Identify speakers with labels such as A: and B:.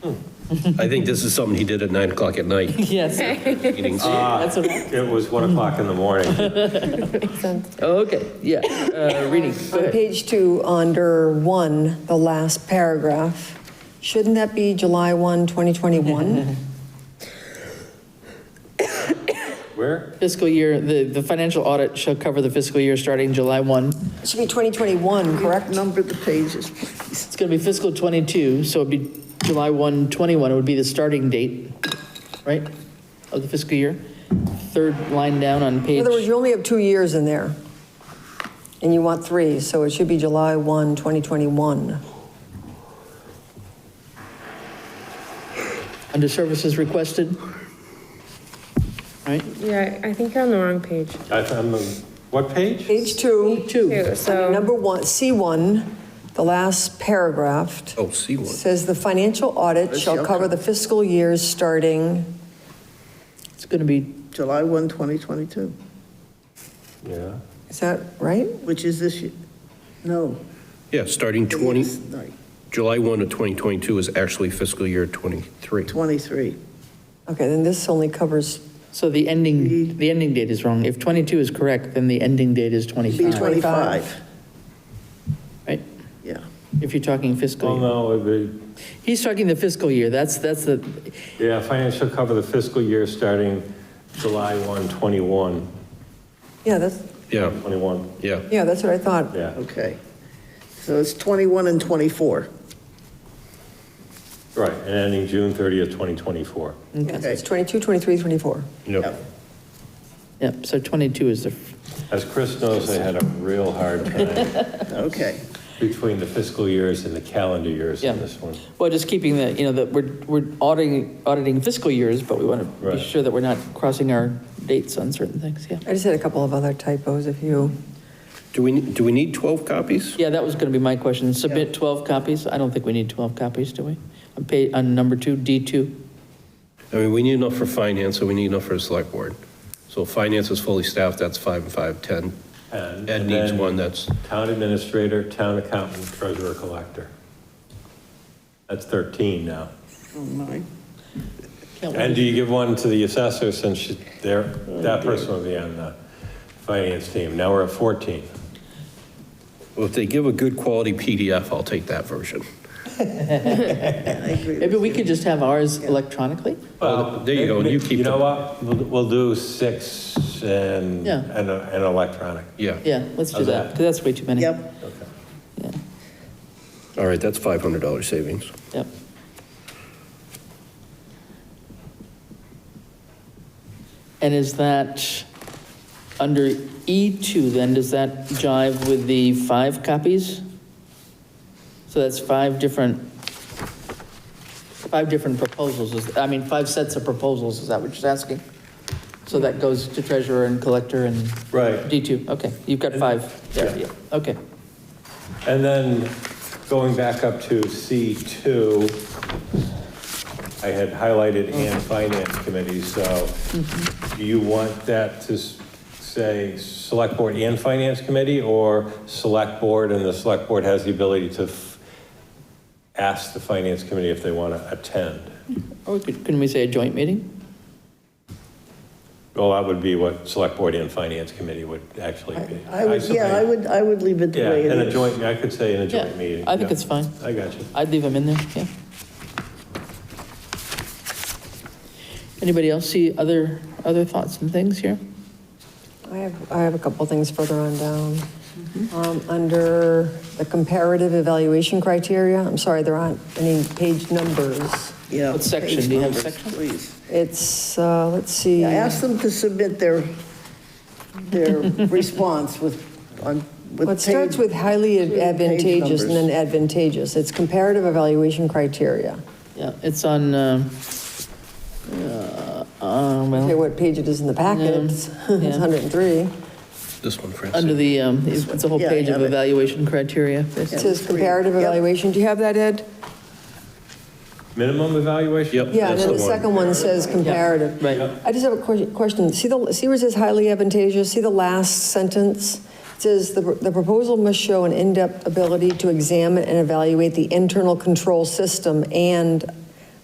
A: I think this is something he did at 9 o'clock at night.
B: Yes,
A: meetings.
B: that's what I,
C: It was 1 o'clock in the morning.
B: okay, yeah, uh, reading, go
D: On
B: ahead.
D: page two, under one, the last paragraph, shouldn't that be July 1, 2021?
C: Where?
B: Fiscal year, the, the financial audit shall cover the fiscal year starting July 1.
D: It should be 2021, correct?
E: Number the pages.
B: It's going to be fiscal '22, so it'd be July 1, '21 would be the starting date, right, of the fiscal year? Third line down on
D: In
B: page,
D: other words, you only have two years in there, and you want three, so it should be July 1, 2021.
B: under services requested. Right,
F: Yeah, I think you're on the wrong page
C: I found the, what page?
D: Page two,
B: two,
F: too, so.
D: number one, C1, the last paragraph,
A: Oh, see one.
D: says the financial audit shall cover the fiscal years starting,
B: it's going to be,
E: July 1, 2022,
C: Yeah.
D: is that right?
E: which is this year. No.
A: Yeah, starting 20,
E: it's not,
A: July 1 of 2022 is actually fiscal year 23.
E: 23.
D: Okay, then this only covers
B: so the ending, the ending date is wrong. If '22 is correct, then the ending date is
E: Be
B: '25,
E: 25.
B: right?
E: Yeah.
B: If you're talking
C: Well,
B: fiscal. year.
C: no, it'd be,
B: He's talking the fiscal year, that's, that's the,
C: yeah, financial cover the fiscal year starting July 1, 21,
D: Yeah, that's,
C: 21,
A: Yeah, yeah.
D: yeah, that's what I thought.
C: yeah.
E: Okay. So it's 21 and 24.
C: Right, and ending June 30th, 2024.
D: Yeah, so It's
E: Okay.
D: 22, 23, 24.
A: Yep.
B: yep, so '22 is the,
C: As Chris knows, I had a real hard time
E: Okay.
C: between the fiscal years and the calendar years
B: Yeah.
C: in this one.
B: well, just keeping the, you know, that we're, we're auditing, auditing fiscal years, but we want to be
C: Right.
B: sure that we're not crossing our dates on certain things, yeah.
D: I just had a couple of other typos if you,
A: Do we, do we need 12 copies?
B: Yeah, that was going to be my question. Submit 12 copies? I don't think we need 12 copies, do we? On page, on number two, D2.
A: I mean, we need enough for finance, and we need enough for the select board. So finance is fully staffed, that's five and five, 10.
C: And
A: Ed needs
C: then
A: one that's,
C: Town administrator, town accountant, treasurer, collector. That's 13 now.
E: Oh, my.
B: Can't
C: And
B: wait.
C: do you give one to the assessor since she- there, that person will be on the finance team? Now we're at 14.
A: well, if they give a good quality PDF, I'll take that version.
E: I agree.
B: Maybe
E: with
B: we
E: you.
B: could just have ours electronically?
A: Well, there you go, you keep
C: You
A: the-
C: know what? We'll we'll do six and,
B: Yeah.
C: and a- and electronic.
A: Yeah.
B: Yeah, let's do
C: How's
B: that,
C: that?
B: 'cause that's way too many.
E: Yep.
B: Yeah,
A: All right, that's $500 savings.
B: Yep. And is that, under E2 then, does that jive with the five copies? So that's five different, five different proposals, is- I mean, five sets of proposals, is that what you're asking? So that goes to treasurer and collector and
C: Right.
B: D2, okay, you've got five there, yeah, okay.
C: And then going back up to C2, I had highlighted and finance committee, so do you want that to s- say select board and finance committee or select board and the select board has the ability to f- ask the finance committee if they want to attend?
B: Or we Oh, could- couldn't we say a joint meeting?
C: Well, that would be what select board and finance committee would actually
E: I-
C: be.
E: I would, yeah, I
C: suppose-
E: would, I would leave it the
C: Yeah,
E: way it is.
C: in a joint, I could say in a
B: Yeah,
C: joint meeting.
B: I think
C: yeah.
B: it's fine.
C: I got you.
B: I'd leave them in there, yeah. Anybody else see other, other thoughts and things here?
D: I have, I have a couple things further on down.
E: Mm-hmm.
D: Um, Under the comparative evaluation criteria, I'm sorry, there aren't any page numbers.
E: Yeah.
B: What section?
E: page
B: Do you have
E: numbers,
B: section?
E: Please.
D: It's, uh, let's see,
E: Yeah, ask them to submit their, their response with, on, with.
D: Well, it starts
E: page-
D: with highly
E: page
D: advantageous and
E: numbers.
D: then advantageous. It's comparative evaluation criteria.
B: Yeah, it's on, um, uh, uh,
E: Oh.
D: Okay,
B: well,
D: what page it is in the packet,
B: Um,
D: it's
B: yeah.
D: it's 103.
A: This one, Francine.
B: under the, um, it's it's a whole
E: Yeah, I
B: page of
E: have it.
B: evaluation criteria.
D: It
E: Yeah.
D: says
E: three.
D: comparative
E: Yep.
D: evaluation. Do you have that, Ed?
C: Minimum evaluation?
A: Yep.
D: Yeah, and
A: That's
D: then
A: the
D: the
A: one.
D: second one says comparative.
B: right.
D: I just have a que- question. See the, see where it says highly advantageous? See the last sentence? It says, "The the proposal must show an in-depth ability to examine and evaluate the internal control system and